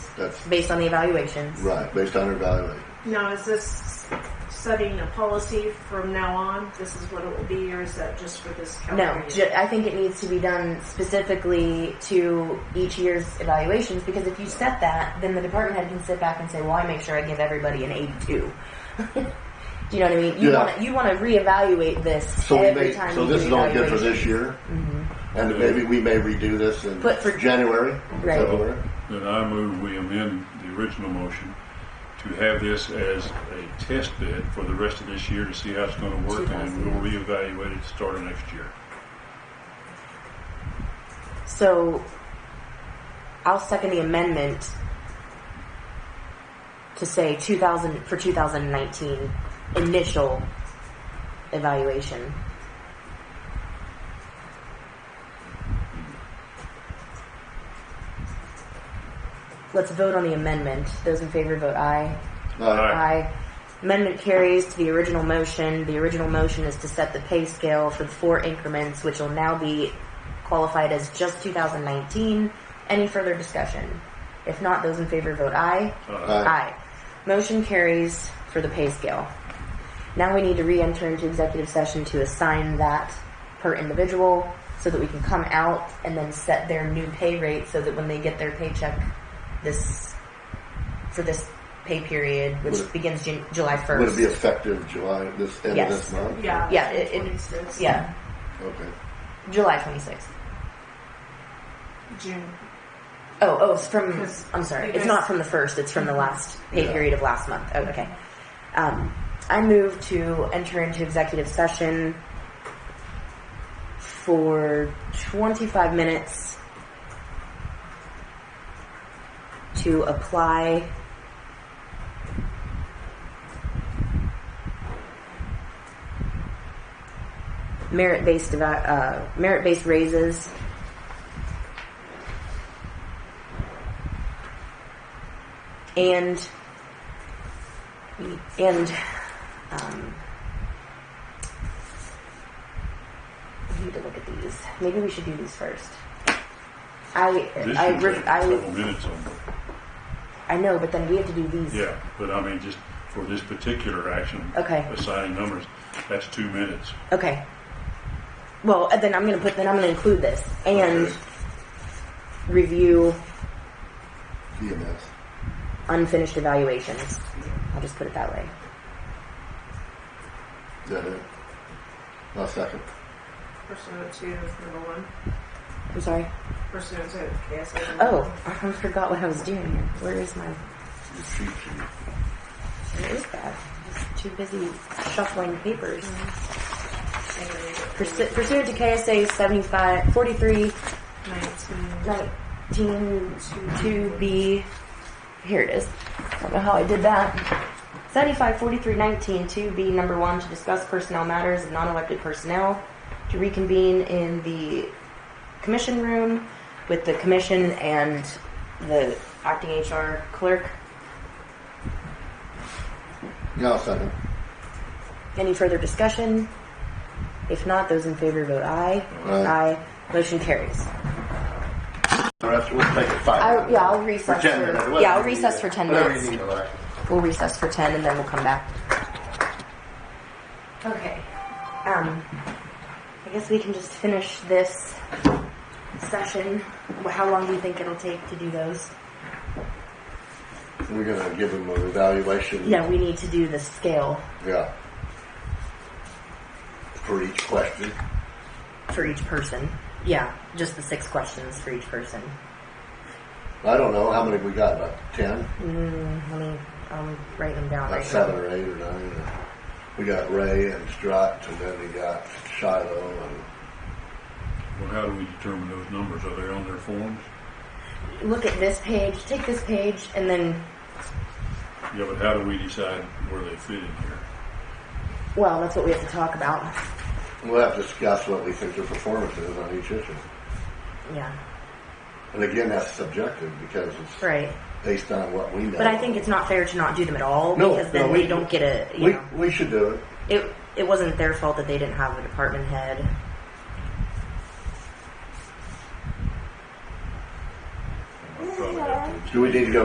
That's based on the evaluations. right, based on evaluation. Now, is this setting a policy from now on? This is what it will be, or is that just for this calendar No, year? ju- I think it needs to be done specifically to each year's evaluations because if you set that, then the department head can sit back and say, "Well, I make sure I give everybody an 82." Do you know what I mean? You Yeah. want to you want to reevaluate this So we every may, time. so you this do is all good for evaluation. this year, and maybe we may redo this in But for- January, Right. February. Then I move we amend the original motion to have this as a test bed for the rest of this year to see how it's gonna work, and then we'll reevaluate it starting next year. So I'll second the amendment to say 2000 for 2019 initial evaluation. Let's vote on the amendment. Those in favor vote aye. Uh, Aye. Amendment carries to the original motion. The original motion is to set the pay scale for the four increments, which will now be qualified as just 2019. Any further discussion? If not, those in favor vote aye. Uh, Aye. Motion carries for the pay scale. Now we need to re-enter into executive session to assign that per individual so that we can come out and then set their new pay rate so that when they get their paycheck this, for this pay period, which Would it- begins Jan- July Would it be 1st. effective July, this, end of Yes. this month? Yeah. Yeah, it- it- 26, Yeah, Okay. July 26th. June. Oh, oh, it's from. 'Cause I'm sorry. you It's guys- not from the first. It's from the last pay Yeah. period of last month. Oh, okay. Um, I move to enter into executive session for 25 minutes to apply merit-based eva- uh, merit-based raises and and um, I need to look at these. Maybe we should do these first. I This I should re- take several I minutes on, I know, but then we have to do these. yeah, but I mean, just for this particular action. Okay. Assigning numbers, that's two minutes. Okay. Well, and then I'm gonna put. Then I'm gonna include this and Okay. review EMS. unfinished evaluations. I'll just put it that way. Is that it? I'll second. Pursuant to number one. I'm sorry. Pursuant to KSA. number Oh, one. I forgot what I was doing here. Where is my? The cheat sheet. Where is that? I'm too busy shuffling papers. And then you get Pursu- Pursuant to KSA 75, 43, 19. 19, 2B. Here it is. I don't know how I did that. 75, 43, 19, 2B, number one, to discuss personnel matters of non-elected personnel, to reconvene in the commission room with the commission and the acting HR clerk. Yeah, I'll second. Any further discussion? If not, those in favor vote aye. Aye. Aye. Motion carries. The rest, we'll take it five. I- minutes. yeah, I'll recess Or ten for- minutes, yeah, whatever I'll you recess need. for 10 Whatever minutes. you need, Alexa. We'll recess for 10 and then we'll come back. Okay. Um, I guess we can just finish this session. Wh- How long do you think it'll take to do those? We're gonna give them an evaluation. No, we need to do the scale Yeah. For each question. for each person. Yeah, just the six questions for each person. I don't know, how many we got, about ten? Let me um, write them down About right seven now. or eight or nine. or- We got Ray and Strut, and then we got Shiloh and Well, how do we determine those numbers? Are they on their forms? Look at this page, take this page, and then, Yeah, but how do we decide where they fit in here? well, that's what we have to talk about. We'll have to discuss what we think their performance is on each issue. Yeah, And again, that's subjective because it's right. based on what we know. But I think it's not fair to not do them at all No, because then no, we, we- don't get a. You We, know, we should do it. it it wasn't their fault that they didn't have a department head. I probably have to Do we need to go